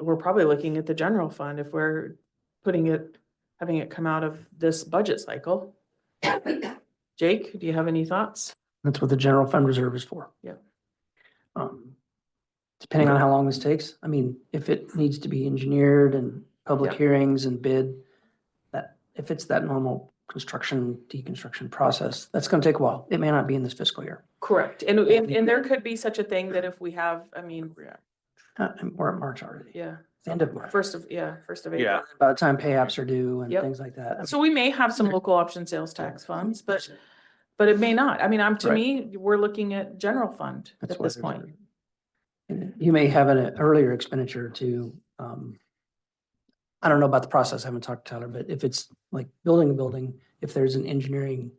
we're probably looking at the general fund if we're putting it, having it come out of this budget cycle. Jake, do you have any thoughts? That's what the general fund reserve is for. Yeah. Um, Depending on how long this takes, I mean, if it needs to be engineered and public Yeah. hearings and bid, that, if it's that normal construction, deconstruction process, that's gonna take a while. It may not be in this fiscal year. Correct. And, and, and there could be such a thing that if we have, I mean, Uh, and We're at March already, yeah, end of March. first of, yeah, first of April. Yeah. By the time pay apps are due and Yep. things like that. So we may have some Okay. local option sales tax funds, but, but it may not. I mean, I'm, to Right. me, we're looking at general fund That's at why this there's point. a- and You may have an earlier expenditure to, um, I don't know about the process, I haven't talked to Tyler, but if it's like building a building, if there's an engineering,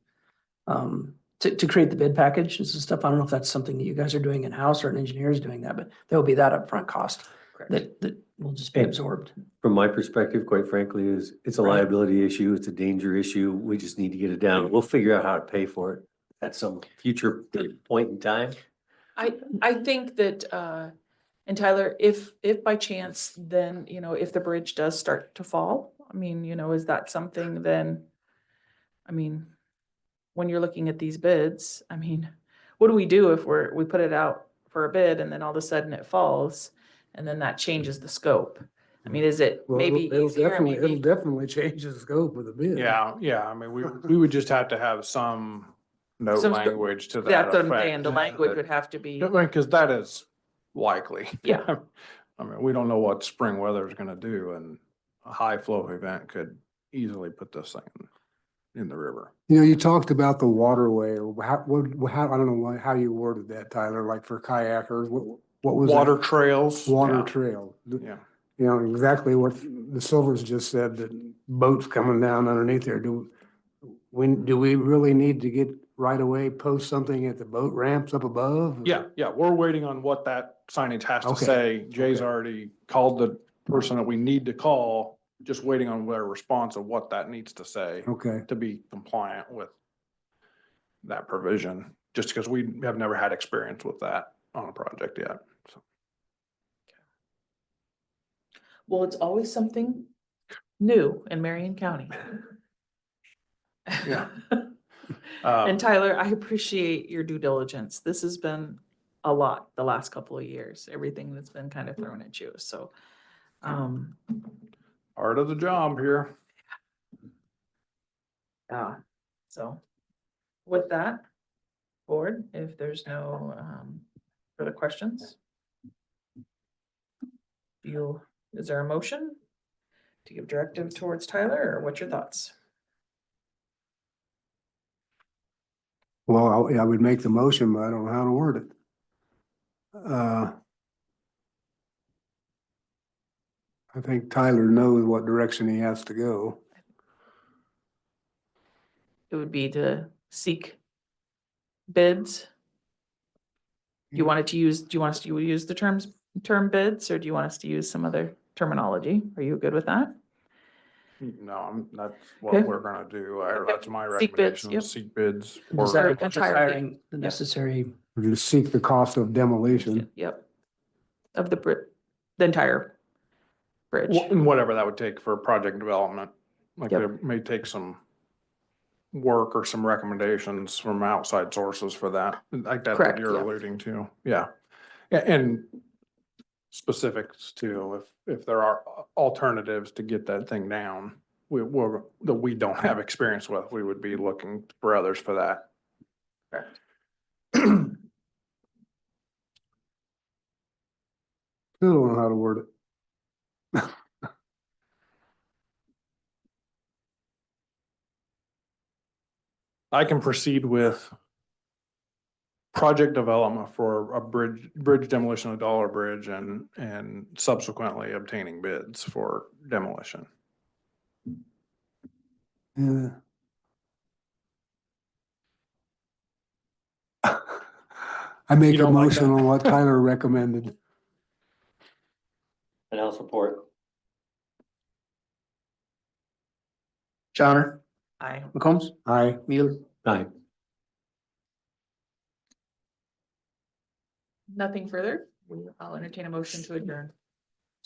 um, to, to create the bid package and some stuff, I don't know if that's something that you guys are doing in-house or an engineer is doing that, but there will be that upfront cost Correct. that, that will just be And- absorbed. From my perspective, quite frankly, is it's a Right. liability issue, it's a danger issue. We just need to get it down. We'll figure out how to pay for it at some future point in time. I, I Mm-hmm. think that, uh, and Tyler, if, if by chance, then, you know, if the bridge does start to fall, I mean, you know, is that something then? I mean, when you're looking at these bids, I mean, what do we do if we're, we put it out for a bid and then all of a sudden it falls? And then that changes the scope. I mean, is it Well, it'll- maybe it'll easier, definitely, it'll maybe? definitely change the scope of the bid. Yeah, yeah, I mean, we, we would just have to have some note Some- language to that That's what I'm effect. saying, the language would have to be, Because that is likely. Yeah. I mean, we don't know what spring weather is gonna do and a high flow event could easily put this thing in the river. You know, you talked about the waterway, or how, what, how, I don't know why- how you worded that, Tyler, like for kayakers, what, what was? that? Water trails. Water yeah, trail. You Yeah, know, exactly what the Silvers just said, that boats coming down underneath there. Do, when, do we really need to get right away, post something at the boat ramps up above? yeah, yeah, we're waiting on what that signage has to Okay, say. Jay's okay. already called the person that we need to call, just waiting on their response of what that needs to say. Okay. to be compliant with that provision, just because we have never had experience with that on a project yet. So, well, it's always something new in Marion County. Yeah. And um, Tyler, I appreciate your due diligence. This has been a lot the last couple of years, everything that's been kind of thrown at you, so. Um, Part of the job here. yeah, so with that, board, if there's no um further questions. You, is there a motion to give directive towards Tyler or what's your thoughts? Well, I I would make the motion, but I don't know how to word it. Uh, I think Tyler knows what direction he has to go. It would be to seek bids. You Mhm. wanted to use, do you want us to use the terms, term bids, or do you want us to use some other terminology? Are you good with that? No, I'm, that's Okay. what we're gonna do. I- Okay. That's my Seek bids, recommendation, yep. is seek bids. Just or- hiring- just entirely. hiring The necessary, Or Just seek the cost of demolition. Yep. Of the bri- the entire bridge. Wh- and Whatever that would take for project development, like Yep. there may take some work or some recommendations from outside sources for that, like that Correct, that you're yeah. alluding to, yeah. A- And specifics too, if, if there are al- alternatives to get that thing down, we, we're, that we don't have experience with, we would be looking for others for that. Correct. Still don't know how to word it. I can proceed with project development for a bridge, bridge demolition of Dollar Bridge and, and subsequently obtaining bids for demolition. Yeah. I make a don't like motion that? on what Tyler recommended. And I'll support. Johnner, I, McCombs, Aye. Mueller. Aye. nothing further. I'll entertain a motion to adjourn.